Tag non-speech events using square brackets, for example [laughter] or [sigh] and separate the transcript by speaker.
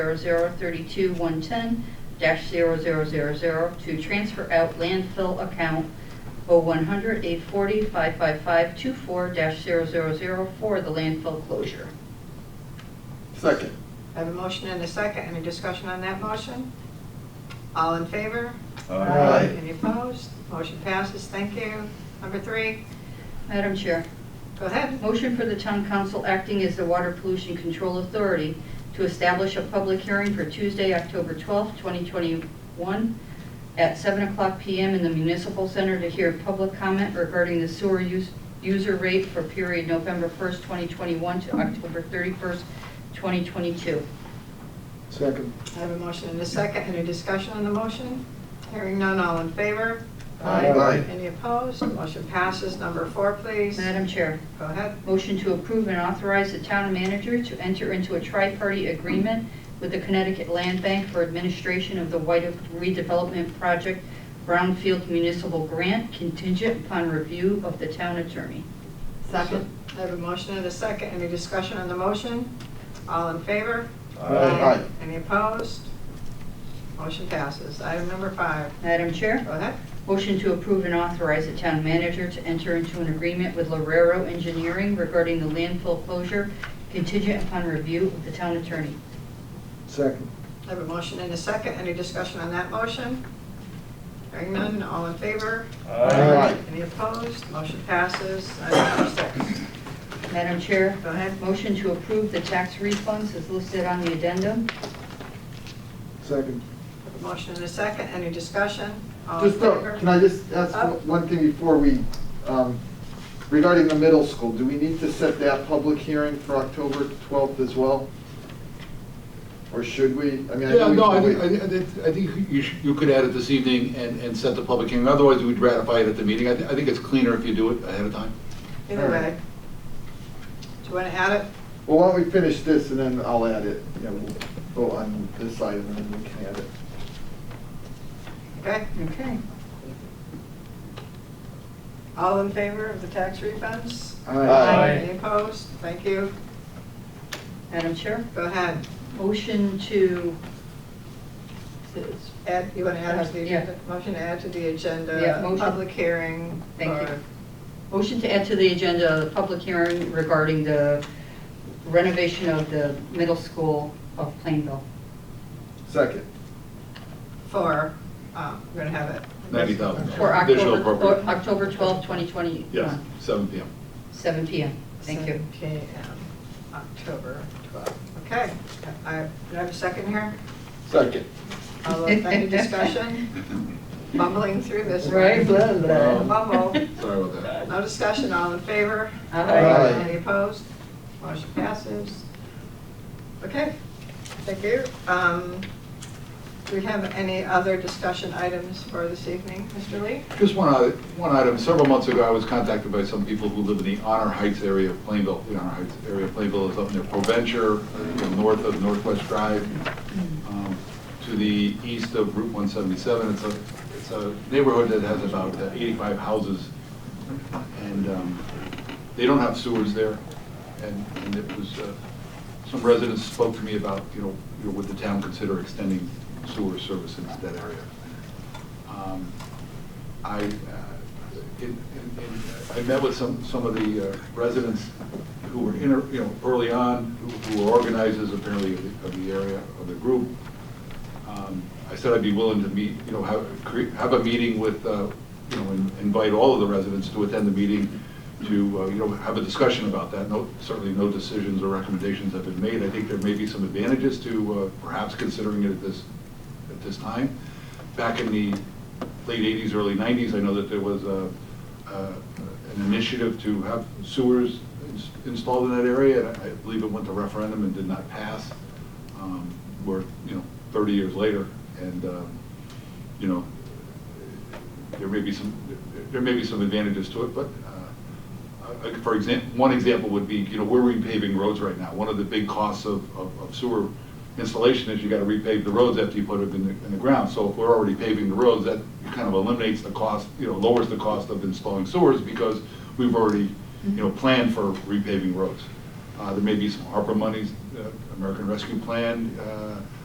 Speaker 1: 0032-110-0000 to transfer out landfill account 0100840-55524-000 for the landfill closure.
Speaker 2: Second.
Speaker 3: I have a motion and a second. Any discussion on that motion? All in favor?
Speaker 2: Aye.
Speaker 3: Any opposed? Motion passes. Thank you. Number three,
Speaker 1: Madam Chair,
Speaker 3: go ahead.
Speaker 1: motion for the town council acting as the Water Pollution Control Authority to establish a public hearing for Tuesday, October 12th, 2021, at 7 o'clock PM in the Municipal Center to hear public comment regarding the sewer use, user rate for period November 1st, 2021 to October 31st, 2022.
Speaker 2: Second.
Speaker 3: I have a motion and a second. Any discussion on the motion? Hearing none, all in favor?
Speaker 2: Aye. Aye.
Speaker 3: Any opposed? Motion passes. Number four, please.
Speaker 1: Madam Chair.
Speaker 3: Go ahead.
Speaker 1: Motion to approve and authorize the town manager to enter into a tri-party agreement with the Connecticut Land Bank for administration of the White Oak redevelopment project Brownfield Municipal Grant contingent upon review of the town attorney.
Speaker 3: Second. I have a motion and a second. Any discussion on the motion? All in favor?
Speaker 2: Aye.
Speaker 3: Any opposed? Motion passes. Item number five,
Speaker 1: Madam Chair,
Speaker 3: go ahead.
Speaker 1: motion to approve and authorize the town manager to enter into an agreement with Lorero Engineering regarding the landfill closure contingent upon review of the town attorney.
Speaker 2: Second.
Speaker 3: I have a motion and a second. Any discussion on that motion? Hearing none, all in favor?
Speaker 2: Aye.
Speaker 3: Any opposed? Motion passes. Item number six.
Speaker 1: Madam Chair,
Speaker 3: Go ahead.
Speaker 1: motion to approve the tax refunds as listed on the addendum.
Speaker 2: Second.
Speaker 3: Have a Motion and a second. Any discussion? All in
Speaker 2: Just, uh,
Speaker 3: favor?
Speaker 2: can I just ask
Speaker 3: Up.
Speaker 2: one- one thing before we, um, regarding the middle school, do we need to set that public hearing for October 12th as well? Or should we? I mean, I
Speaker 4: Yeah,
Speaker 2: know we
Speaker 4: no, I
Speaker 2: can
Speaker 4: think,
Speaker 2: wait.
Speaker 4: I think- I think- I think you, sh- you could add it this evening and, and set the public hearing, otherwise we'd ratify it at the meeting. I, thi- I think it's cleaner if you do it ahead of time.
Speaker 3: Either way. Do you want to add it?
Speaker 2: Well, why don't we finish this and then I'll add it, you know, we'll vote on this item and then we can add it.
Speaker 3: Okay.
Speaker 1: Okay.
Speaker 3: All in favor of the tax refunds?
Speaker 2: Aye.
Speaker 3: Any opposed? Thank you.
Speaker 1: Madam Chair,
Speaker 3: Go ahead.
Speaker 1: motion to,
Speaker 3: Add, you want to add it to the
Speaker 1: Yeah.
Speaker 3: agenda? Motion to add to the agenda.
Speaker 1: Yeah, motion.
Speaker 3: Public hearing.
Speaker 1: Thank you.
Speaker 3: for-
Speaker 1: motion to add to the agenda the public hearing regarding the renovation of the middle school of Plainville.
Speaker 2: Second.
Speaker 3: For, um, we're going to have it.
Speaker 4: Ninety thousand.
Speaker 1: For
Speaker 4: Additional
Speaker 1: October,
Speaker 4: appropriate.
Speaker 1: for October 12, 2021.
Speaker 4: Yes, seven PM.
Speaker 1: Seven PM. Thank you.
Speaker 3: 7 PM, October 12th. Okay. I, do I have a second here?
Speaker 2: Second.
Speaker 3: All of,
Speaker 1: [laughs]
Speaker 3: any discussion? Bumbling through this. one.
Speaker 1: Right, blah, blah. [laughs]
Speaker 3: Bumble.
Speaker 4: Um, Sorry about that.
Speaker 3: No discussion, all in favor?
Speaker 1: Aye.
Speaker 2: Aye.
Speaker 3: Any opposed? Motion passes. Okay, thank you. Um, Do we have any other discussion items for this evening, Mr. Lee?
Speaker 4: Just one, other- one item, several months ago, I was contacted by some people who live in the Honor Heights area of Plainville. The Honor Heights area of Plainville is up near Proventure, you know, north of Northwest Drive, um, to the east of Route 177. It's a, it's a neighborhood that has about uh, 85 houses, and um, they don't have sewers there. And and it was, uh, some residents spoke to me about, you know, you know, would the town consider extending sewer service into that area? Um, I, uh, in- in- in- I met with some, some of the uh, residents who were in, you know, early on, who- who were organizers apparently of the- of the area, of the group. Um, I said I'd be willing to meet, you know, have, cre- have a meeting with, uh, you know, in- invite all of the residents to attend the meeting to, uh, you know, have a discussion about that. No, certainly no decisions or recommendations have been made. I think there may be some advantages to uh, perhaps considering it at this, at this time. Back in the late 80s, early 90s, I know that there was a, uh, an initiative to have sewers ins- installed in that area, and I believe it went to referendum and did not pass. Um, We're, you know, 30 years later, and, um, you know, there may be some, there may be some advantages to it, but, uh, uh, for example, one example would be, you know, we're repaving roads right now. One of the big costs of of- of sewer installation is you gotta repave the roads after you put it in the, in the ground. So if we're already paving the roads, that kind of eliminates the cost, you know, lowers the cost of installing sewers because we've already, you know, planned for repaving roads. Um, Uh, There may be some ARPA monies, uh, American Rescue Plan uh,